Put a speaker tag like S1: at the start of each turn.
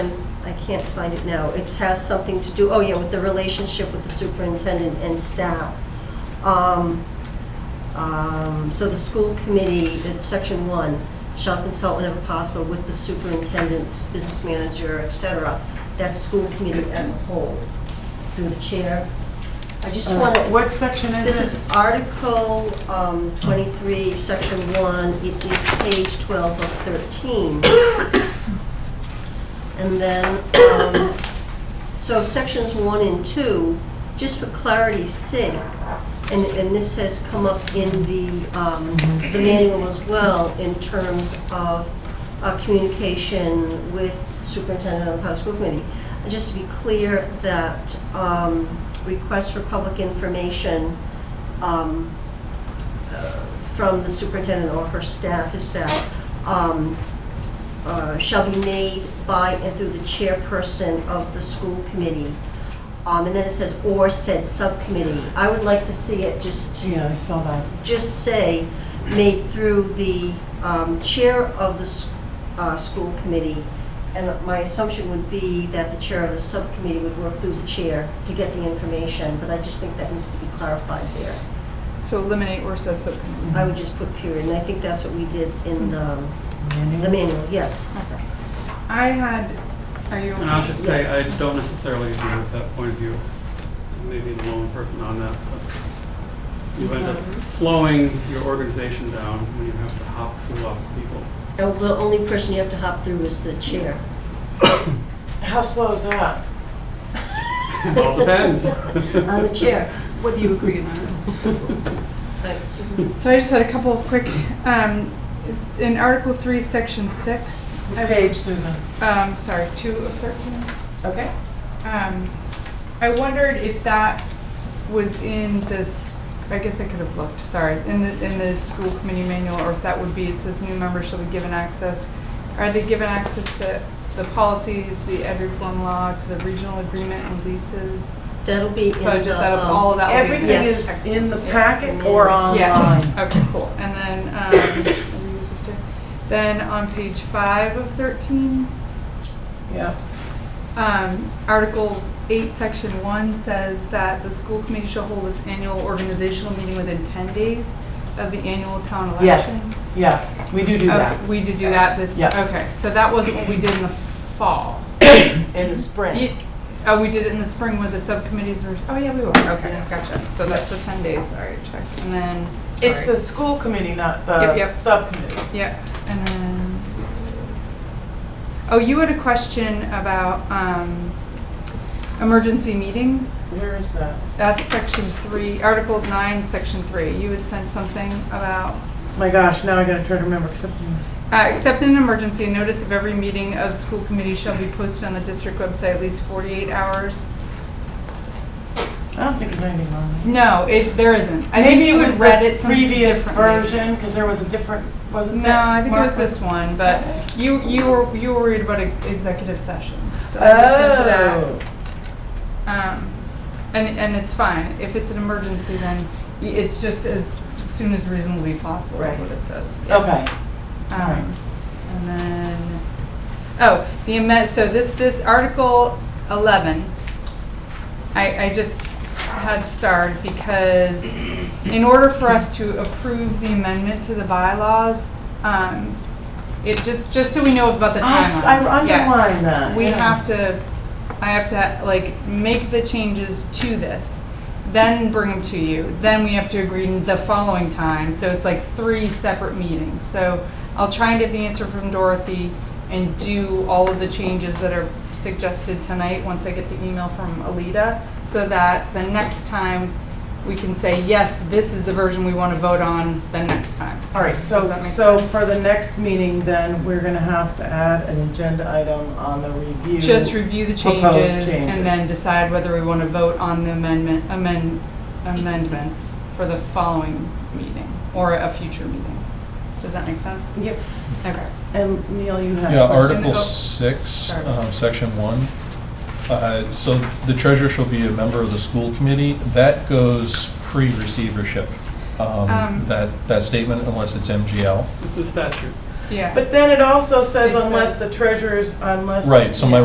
S1: I can't find it now. It has something to do, oh yeah, with the relationship with the superintendent and staff. Um, um, So the school committee, that section one, shall consult whenever possible with the superintendent's business manager, et cetera. That's school committee as a whole, through the chair. I just want to,
S2: Uh, What section is it?
S1: this is Article um, 23, Section 1, it is page 12 of 13. And then, um, so Sections 1 and 2, just for clarity's sake, and, and this has come up in the, um, the manual as well, in terms of uh, communication with superintendent of the House School Committee. Just to be clear that um, requests for public information um, uh, from the superintendent or her staff, his staff, um, uh, shall be made by and through the chairperson of the school committee. Um, And then it says, or said subcommittee. I would like to see it just
S2: Yeah, I saw that.
S1: just say, made through the um, chair of the s- uh, school committee. And my assumption would be that the chair of the subcommittee would work through the chair to get the information, but I just think that needs to be clarified there.
S3: So eliminate or said subcommittee.
S1: I would just put period, and I think that's what we did in the the
S2: Manual?
S1: manual, yes.
S3: Okay. I had, are you?
S4: And I'll just say, I don't necessarily agree with that point of view. Maybe the lone person on that, but you end up slowing your organization down when you have to hop through lots of people.
S1: And the only person you have to hop through is the chair.
S2: How slow is that?
S4: It all depends.
S1: On Uh, the chair.
S3: Whether you agree or not.
S1: Right, Susan?
S3: So I just had a couple of quick, um, in Article Three, Section Six. I-
S2: What page, Susan?
S3: Um, sorry, two of thirteen.
S2: Okay.
S3: Um, I wondered if that was in this, I guess I could have looked, sorry, in the, in the school committee manual, or if that would be, it says new members shall be given access. Are they given access to the policies, the ed reform law, to the regional agreement and leases?
S1: That'll be in the.
S3: Budget, that'll,
S1: um,
S3: all of that will be.
S2: Everything
S1: Yes.
S2: is in the packet or online?
S3: Yeah, okay, cool. And then, um, let me use it to- then on page five of thirteen,
S2: Yeah.
S3: Um, Article 8, Section 1 says that the school committee shall hold its annual organizational meeting within 10 days of the annual town
S2: Yes.
S3: elections.
S2: Yes, we do do
S3: Okay,
S2: that.
S3: We did do that this,
S2: Yeah.
S3: okay, so that wasn't what we did in the fall.
S2: In the spring.
S3: Ye- Oh, we did it in the spring where the subcommittees were, oh, yeah, we were, okay, gotcha. So that's the 10 days, sorry, check, and then,
S2: It's the
S3: sorry.
S2: school committee, not
S3: Yep,
S2: the
S3: yep.
S2: subcommittees.
S3: Yep, and then, oh, you had a question about um, emergency meetings?
S2: Where is that?
S3: That's section three, article nine, section three. You had sent something about,
S2: My gosh, now I gotta try to remember, except,
S3: uh, except in an emergency, notice of every meeting of school committee shall be posted on the district website at least forty-eight hours.
S2: I don't think there's anything wrong with it.
S3: No, it, there isn't. I think
S2: Maybe
S3: you
S2: it
S3: had
S2: was
S3: read it
S2: the
S3: something
S2: previous
S3: differently.
S2: version, because there was a different, wasn't
S3: No,
S2: there?
S3: I think it was
S2: Mark?
S3: this one, but you, you were, you were worried about e- executive sessions. but I looked into that.
S2: Oh.
S3: Um, and, and it's fine. If it's an emergency, then y- it's just as soon as reasonably possible is
S2: Right.
S3: what it says. Yeah.
S2: Okay. Alright.
S3: Um, And then, oh, the amendment, so this, this Article 11, I, I just had starred because in order for us to approve the amendment to the bylaws, um, it just, just so we know about the
S2: I Ah, s- I
S3: timeline. Yeah.
S2: underlined that.
S3: We
S2: yeah.
S3: have to, I have to, like, make the changes to this, then bring them to you, then we have to agree the following time, so it's like three separate meetings. So I'll try and get the answer from Dorothy and do all of the changes that are suggested tonight, once I get the email from Alita, so that the next time we can say, yes, this is the version we want to vote on the next time.
S2: All right, so,
S3: Does that make
S2: so
S3: sense?
S2: for the next meeting, then, we're gonna have to add an agenda item on the review.
S3: Just review the
S2: Proposed
S3: changes and then
S2: changes.
S3: decide whether we want to vote on the amendment, amend, amendments for the following meeting or a future meeting. Does that make sense?
S2: Yep,
S3: Okay.
S2: and Neil, you have.
S5: Yeah,
S2: a question?
S5: Article
S3: Oh.
S5: 6,
S3: Sorry.
S5: um, Section 1. Uh, So the treasurer shall be a member of the school committee. That goes pre-receivership,
S3: Um.
S5: um, that, that statement, unless it's MGL.
S4: It's a statute.
S3: Yeah.
S2: But then it also says
S3: It
S2: unless the
S3: says-
S2: treasurer's, unless.
S5: Right, so my